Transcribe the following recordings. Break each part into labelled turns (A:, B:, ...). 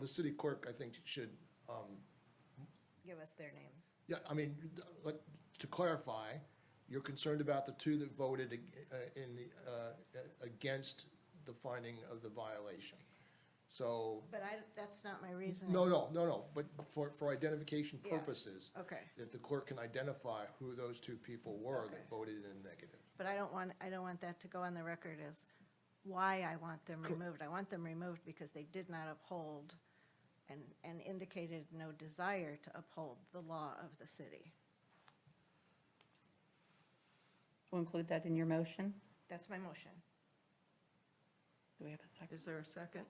A: The city clerk, I think, should,
B: Give us their names.
A: yeah, I mean, like, to clarify, you're concerned about the two that voted ag- uh, in, the, uh, against the finding of the violation. So,
B: But I, that's not my reasoning.
A: no, no, no, no, but for, for identification
B: Yeah, Oh.
A: purposes.
B: okay.
A: If the clerk can identify who those two people were that
B: Okay.
A: voted in negative.
B: But I don't want, I don't want that to go on the record as why I want them removed. I want them removed because they did not uphold and, and indicated no desire to uphold the law of the city.
C: We'll include that in your motion.
B: That's my motion.
C: Do we have a second?
D: Is there a second?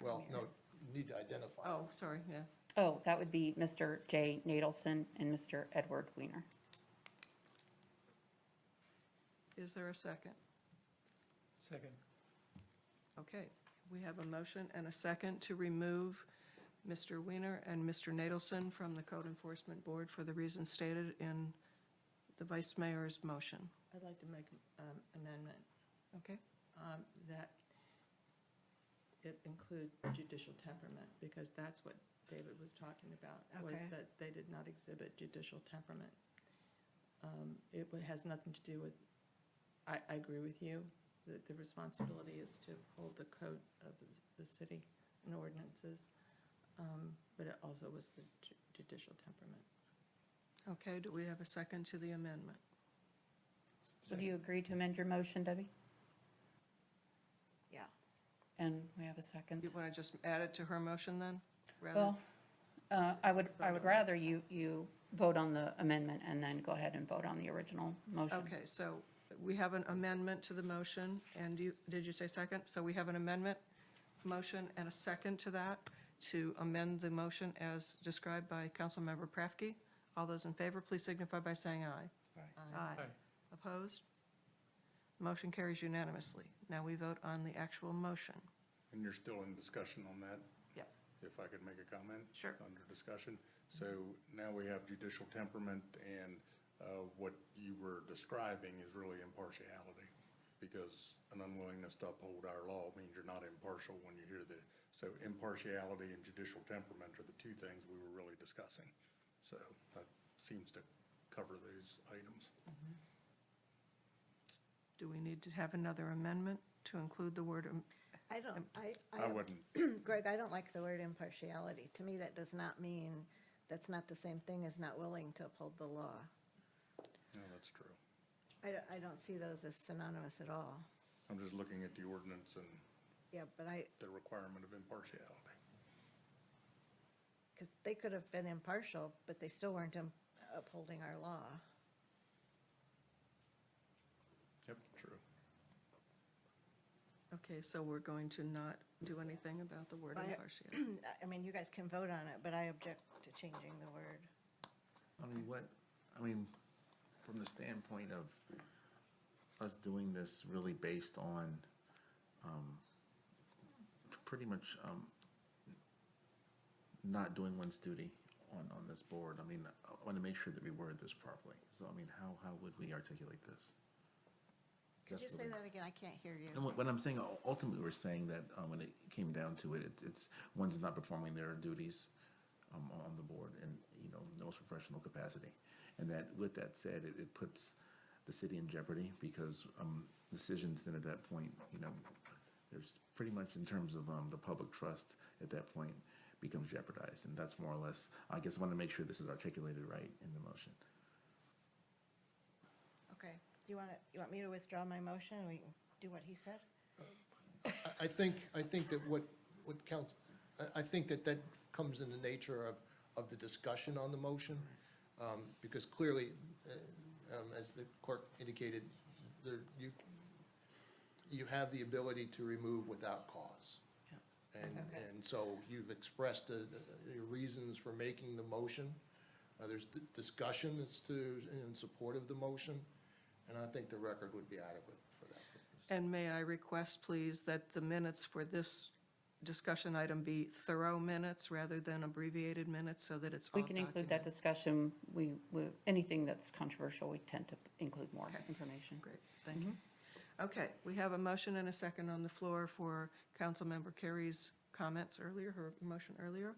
A: Well, no, you need to identify.
D: Oh, sorry, yeah.
C: Oh, that would be Mr. Jay Nadelson and Mr. Edward Weiner.
D: Is there a second?
E: Second.
D: Okay, we have a motion and a second to remove Mr. Weiner and Mr. Nadelson from the Code Enforcement Board for the reasons stated in the Vice Mayor's motion.
F: I'd like to make an amendment
D: Okay?
F: um, that it include judicial temperament, because that's what David was talking about, was
B: Okay.
F: that they did not exhibit judicial temperament. Um, It wa- has nothing to do with, I, I agree with you, that the responsibility is to hold the codes of the- the city and ordinances, um, but it also was the ju- judicial temperament.
D: Okay, do we have a second to the amendment?
C: So do you agree to amend your motion, Debbie?
B: Yeah.
C: And we have a
D: You
C: second.
D: want to just add it to her motion then? rather-
C: Well, uh, I would, I would rather you, you vote on the amendment and then go ahead and vote on the original motion.
D: Okay, so we have an amendment to the motion, and you, did you say second? So we have an amendment, motion, and a second to that, to amend the motion as described by Councilmember Prafke. All those in favor, please signify by saying aye. Aye.
E: Aye.
D: Opposed? Motion carries unanimously. Now we vote on the actual motion.
G: And you're still in discussion on that?
D: Yep.
G: If I could make a comment?
D: Sure.
G: Under discussion. So now we have judicial temperament, and uh, what you were describing is really impartiality, because an unwillingness to uphold our law means you're not impartial when you hear the, so impartiality and judicial temperament are the two things we were really discussing. So that seems to cover those items.
D: Do we need to have another amendment to include the word, um,
B: I don't, I.
G: I wouldn't.
B: Greg, I don't like the word impartiality. To me, that does not mean, that's not the same thing as not willing to uphold the law.
G: No, that's true.
B: I, don't- I don't see those as synonymous at all.
G: I'm just looking at the ordinance and
B: Yeah, but I,
G: the requirement of impartiality.
B: because they could have been impartial, but they still weren't im- upholding our law.
G: Yep, true.
D: okay, so we're going to not do anything about the word
B: Aye.
D: impartiality?
B: I- I mean, you guys can vote on it, but I object to changing the word.
H: I mean, what, I mean, from the standpoint of us doing this really based on, um, pretty much, um, not doing one's duty on, on this board, I mean, I want to make sure that we word this properly. So, I mean, how, how would we articulate this?
B: Could you
H: That's
B: say
H: really-
B: that again? I can't hear
H: and
B: you.
H: what, what I'm saying, u- ultimately, we're saying that um, when it came down to it, it's, it's one's not performing their duties um, on the board in you know the most professional capacity, and that with that said, it, it puts the city in jeopardy because um, decisions then at that point, you know, there's pretty much in terms of um, the public trust at that point becomes jeopardized, and that's more or less. I guess I want to make sure this is articulated right in the motion.
B: Okay. Do you want to, you want me to withdraw my motion and we can do what he said?
A: I- I think, I think that what, what counts, I, I think that that comes in the nature of, of the discussion on the motion, um, because clearly, uh, um, as the clerk indicated, there, you, you have the ability to remove without cause. And,
B: Okay.
A: and so you've expressed uh, your reasons for making the motion. Uh, There's d- discussion as to, in support of the motion, and I think the record would be adequate for that purpose.
D: And may I request, please, that the minutes for this discussion item be thorough minutes rather than abbreviated minutes so that it's all
C: We can include that
D: documented?
C: discussion. We, we- anything that's controversial, we tend to include more
D: Okay.
C: information.
D: Great, thank
C: Mm-hmm.
D: you. Okay, we have a motion and a second on the floor for Councilmember Carey's comments earlier, her motion earlier.